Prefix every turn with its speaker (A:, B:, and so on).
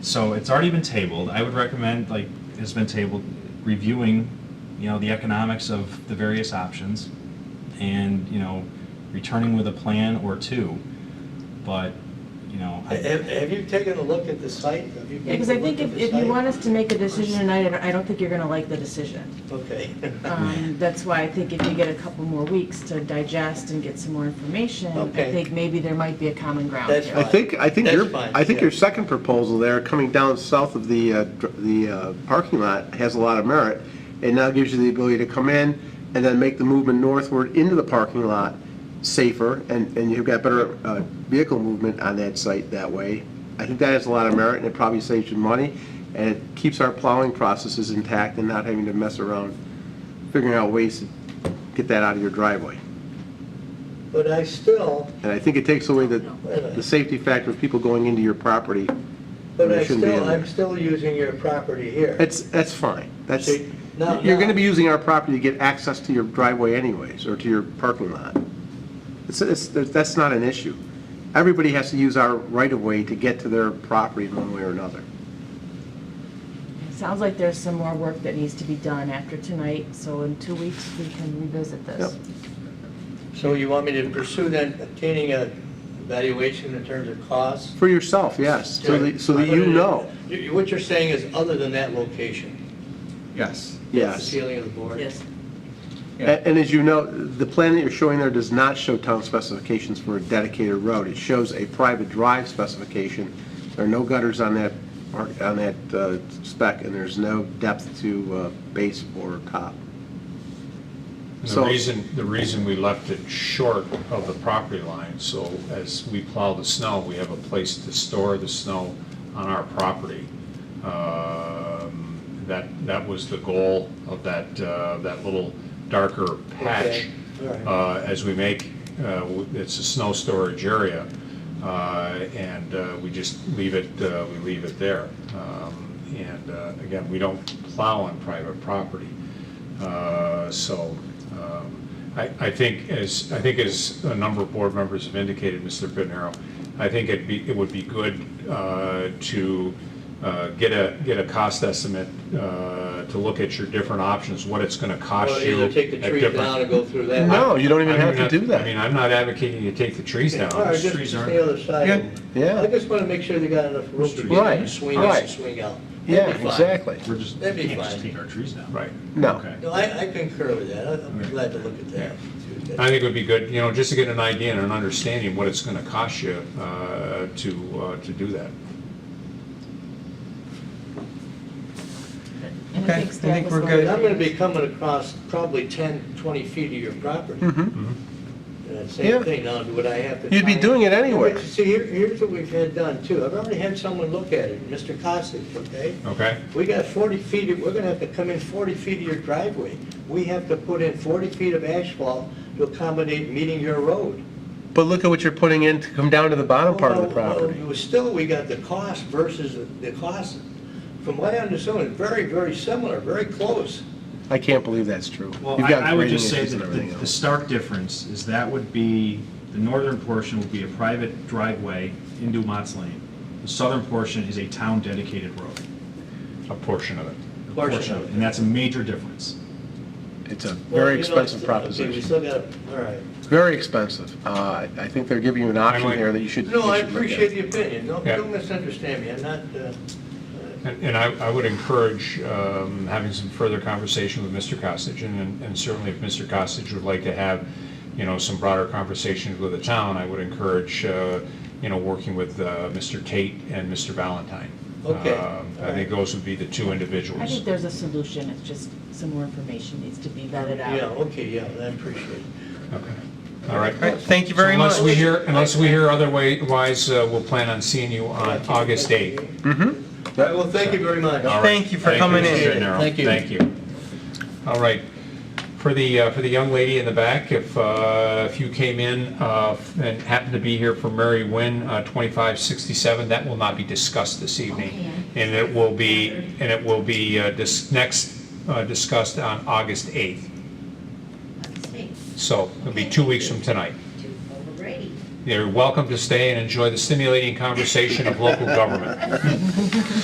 A: So it's already been tabled. I would recommend, like, it's been tabled, reviewing, you know, the economics of the various options and, you know, returning with a plan or two. But, you know, I-
B: Have, have you taken a look at the site? Have you
C: Yeah, because I think
B: looked
C: if,
B: at
C: if
B: the
C: you
B: site?
C: want us to make a decision tonight, I don't- I don't think you're gonna like the decision.
B: Okay.
C: Um, That's why I think if you get a couple more weeks to digest and get some more information, I
B: Okay.
C: think maybe there might be a common ground
B: That's
C: here.
D: I think, I think your,
B: That's fine,
D: I think your
B: yeah.
D: second proposal there, coming down south of the, uh, dr- the uh, parking lot, has a lot of merit. It now gives you the ability to come in and then make the movement northward into the parking lot safer, and, and you've got better uh, vehicle movement on that site that way. I think that has a lot of merit, and it probably saves you money, and it keeps our plowing processes intact and not having to mess around figuring out ways to get that out of your driveway.
B: But I still,
D: And I think it takes away the,
B: Wait a minute.
D: the safety factor of people going into your property.
B: but
D: It
B: I
D: shouldn't be
B: still,
D: in there.
B: I'm still using your property here.
D: That's, that's fine. That's,
B: See, now-
D: you're going to be using our property to get access to your driveway anyways, or to your parking lot. It's, it's, that's not an issue. Everybody has to use our right-of-way to get to their property in one way or another.
C: Sounds like there's some more work that needs to be done after tonight, so in two weeks, we can revisit this.
B: So you want me to pursue then obtaining a evaluation in terms of cost?
D: For yourself, yes, so that, so that you know.
B: You- you- What you're saying is other than that location?
E: Yes.
B: That's the
D: Yes.
B: feeling of the board?
C: Yes.
D: A- And as you know, the plan that you're showing there does not show town specifications for a dedicated road. It shows a private drive specification. There are no gutters on that, mark- on that uh, spec, and there's no depth to uh, base or top.
E: The
D: So-
E: reason, the reason we left it short of the property line, so as we plow the snow, we have a place to store the snow on our property. Um, That, that was the goal of that, uh, that little darker patch.
B: Okay, all right.
E: Uh, As we make, uh, w- it's a snow storage area, uh, and uh, we just leave it, uh, we leave it there. Um, And uh, again, we don't plow on private property. Uh, So um, I I think as, I think as a number of board members have indicated, Mr. Pinero, I think it'd be, it would be good uh, to uh, get a, get a cost estimate, uh, to look at your different options, what it's going to
B: Or
E: cost you.
B: either take the
E: at
B: tree
E: different-
B: down and go through that?
D: No, you don't
E: I
D: even
E: mean,
D: have to do
E: not- I mean,
D: that.
E: I'm not advocating you take the trees down.
B: Or
E: It's
B: just
E: trees
B: just
E: aren't-
B: the other side?
D: Yeah, yeah.
B: I just want to make sure they got enough room to get in,
D: Right,
B: swing in, and
D: right.
B: swing out.
D: Yeah,
B: That'd be fine.
D: exactly.
A: we're just,
B: That'd be
A: can't just
B: fine.
A: take our trees down.
E: Right.
D: No.
E: Okay.
B: No, I, I concur with that, I- I'm
E: Right.
B: glad to look at that.
E: I think it would be good, you know, just to get an idea and an understanding what it's going to cost you uh, to, uh, to do that.
C: And
F: Okay, I
C: staff
F: think
C: is
F: we're
C: going-
F: good.
B: I'm gonna be coming across probably 10, 20 feet of your property.
D: Mm-hmm.
B: And that Same
D: Hmm. Yeah.
B: thing, now, would I have to?
D: You'd be
B: tie-
D: doing it anyway.
B: See, here, here's what we've had done too, I've already had someone look at it, Mr. Costas, okay?
E: Okay?
B: We got 40 feet, of- we're gonna have to come in 40 feet of your driveway. We have to put in 40 feet of asphalt to accommodate meeting your road.
D: But look at what you're putting in to come down to the bottom part of the
B: Well, well,
D: property.
B: well, Still, we got the cost versus the- the cost. From what I understand, it's very, very similar, very close.
D: I can't believe that's true.
A: Well,
D: You've
A: I
D: got
A: I would
D: grading
A: just say
D: issues
A: that
D: and
A: the-
D: everything
A: the
D: else.
A: stark difference is that would be, the northern portion would be a private driveway into Mott's Lane. The southern portion is a town-dedicated road.
E: A portion of it.
A: a
B: Portion of it.
A: And that's a major difference.
D: It's a
B: Well,
D: very
B: you know, it's- Okay,
D: expensive
B: we
D: proposition.
B: still got, all right.
D: It's very expensive. Uh, I I think they're giving you an option
E: like-
D: here that you should.
B: No,
D: you
B: I
D: should look at.
B: appreciate the opinion. Don't,
E: Yeah.
B: don't misunderstand me. I'm not, uh, uh,
E: And and I, I would encourage um, having some further conversation with Mr. Costage, and and certainly if Mr. Costage would like to have, you know, some broader conversations with the town, I would encourage, uh, you know, working with uh, Mr. Tate and Mr. Valentine.
B: Okay,
E: Um, I
B: all right.
E: think those would be the two
C: I think
E: individuals.
C: there's a solution, it's just some more information needs to be vetted out.
B: yeah, okay, yeah, I appreciate it.
E: Okay. All right.
F: All right, thank you very
E: So
F: much.
E: Unless we hear, unless we hear otherwise, uh, we'll plan on seeing you on August 8th.
D: Mm-hmm.
B: All right, well, thank you very much.
E: All right.
F: Thank you for coming in.
E: Mr. Gennaro.
B: Thank you.
E: Thank you. All right. For the, uh, for the young lady in the back, if, uh, if you came in uh, and happened to be here for Mary Wynn, uh, 2567, that will not be discussed this evening. And it will be, and it will be uh, dis- next uh, discussed on August 8th.
G: Let's see,
E: So it'll be two weeks from tonight.
G: two over Brady.
E: You're welcome to stay and enjoy the stimulating conversation of local government.